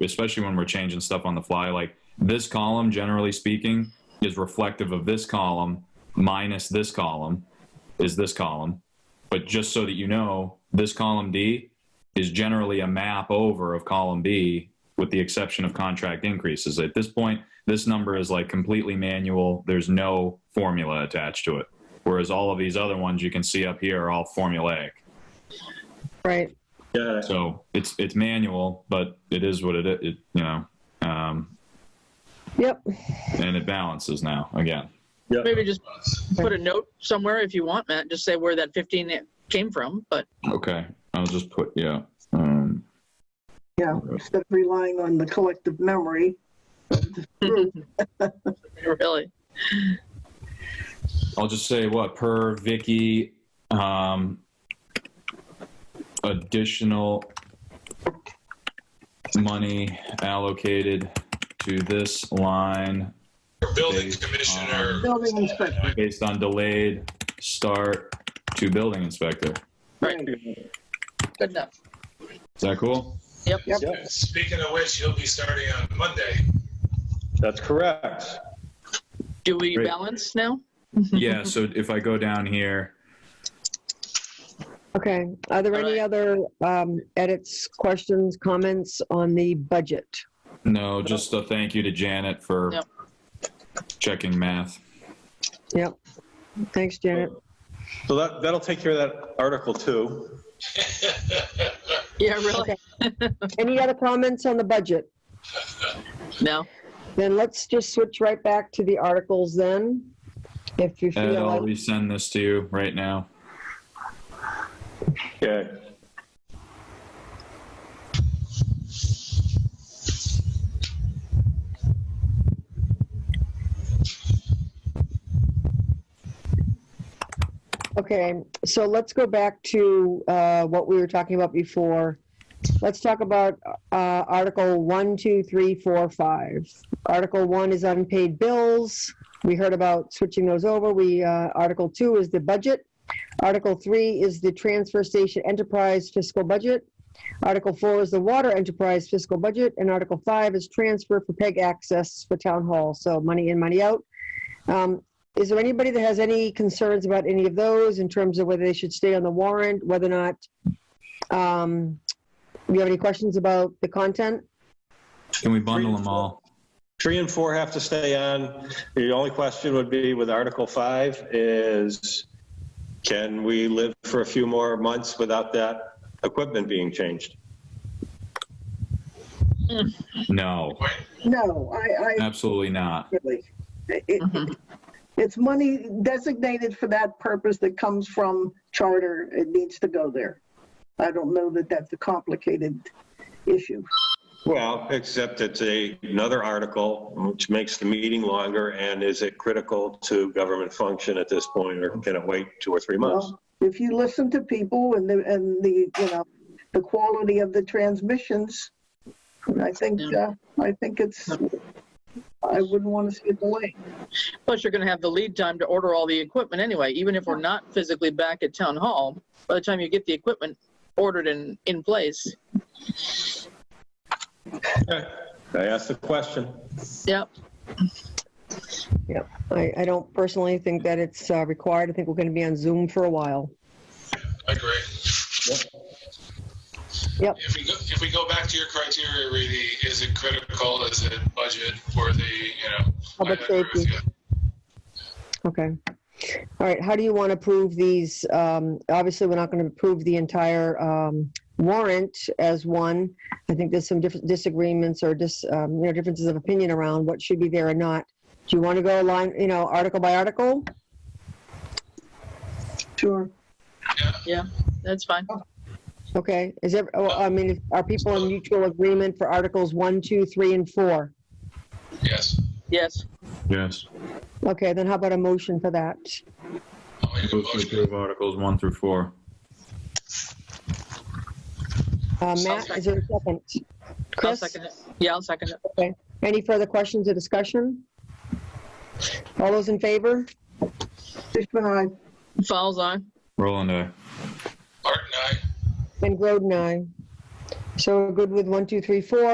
especially when we're changing stuff on the fly. Like this column, generally speaking, is reflective of this column minus this column is this column. But just so that you know, this column D is generally a map over of column B with the exception of contract increases. At this point, this number is like completely manual. There's no formula attached to it. Whereas all of these other ones you can see up here are all formulaic. Right. Got it. So it's it's manual, but it is what it, i- it you know, um, Yep. and it balances now again. Yep. Maybe just put a note somewhere if you want, Matt. Just say where that 15 came from. But Okay, I'll just put yeah. Um, Yeah, instead of relying on the collective memory. really, I'll just say what per Vicky um, additional money allocated to this line Building Based commissioner. Building inspector. based on delayed start to building inspector. right. Good enough. Is that cool? Yeah, Speaking of which, you'll be starting on Monday. That's correct. Do we Great. balance now? yeah. So if I go down here, Okay. Are there All any right. other um, edits, questions, comments on the budget? no, just a thank you to Janet for Yep. checking math. Yep. Thanks, Janet. So that, that'll take care of that article too. Yeah, really. Okay. Any other comments on the budget? No. Then let's just switch right back to the articles then. If you Ed, feel I'll like, resend this to you right now. Okay. okay, so let's go back to uh, what we were talking about before. Let's talk about uh, Article One, Two, Three, Four, Five. Article 1 is unpaid bills. We heard about switching those over. We, uh, Article 2 is the budget. Article 3 is the transfer station enterprise fiscal budget. Article 4 is the water enterprise fiscal budget, and Article 5 is transfer for PEG access for town hall, so money in, money out. Um, Is there anybody that has any concerns about any of those in terms of whether they should stay on the warrant, whether or not? um, Do you have any questions about the content? Can we bundle them all? Three and four have to stay on. The only question would be with Article Five is, can we live for a few more months without that equipment being changed? No, Wait, No, I, I absolutely not. really, it- it, Mhm. it's money designated for that purpose that comes from charter. It needs to go there. I don't know that that's a complicated issue. Well, except it's a, another article which makes the meeting longer and is it critical to government function at this point or can it wait two or three months? Well, if you listen to people and the, and the, you know, the quality of the transmissions, I think, uh, I think it's, I wouldn't want to see it delayed. Plus, you're going to have the lead time to order all the equipment anyway. Even if we're not physically back at town hall, by the time you get the equipment ordered and in place, Okay. I asked the question. yep. I, I don't personally think that it's uh, required. I think we're going to be on Zoom for a while. I agree. Yep. If we go, if we go back to your criteria, Reedy, is it critical? Is it budget worthy? You know. Public I agree with safety. you. Okay. All right, how do you want to approve these? Um, Obviously, we're not going to approve the entire um, warrant as one. I think there's some different disagreements or dis, um, you know, differences of opinion around what should be there or not. Do you want to go line, you know, article by article? Sure. That's fine. Okay, is there, oh, I mean, are people in mutual agreement for articles one, two, three, and four? Yes. Yes. Yes. Okay, then how about a motion for that? I'll make a Move to motion. approve Articles 1 through 4. Uh, Matt, is there a second? I'll Chris? second it. Yeah, I'll second it. Any further questions or discussion? All those in favor? Fishman, I, Falls on. Roland, aye. Art and I. And Groden, aye. So we're good with one, two, three, four.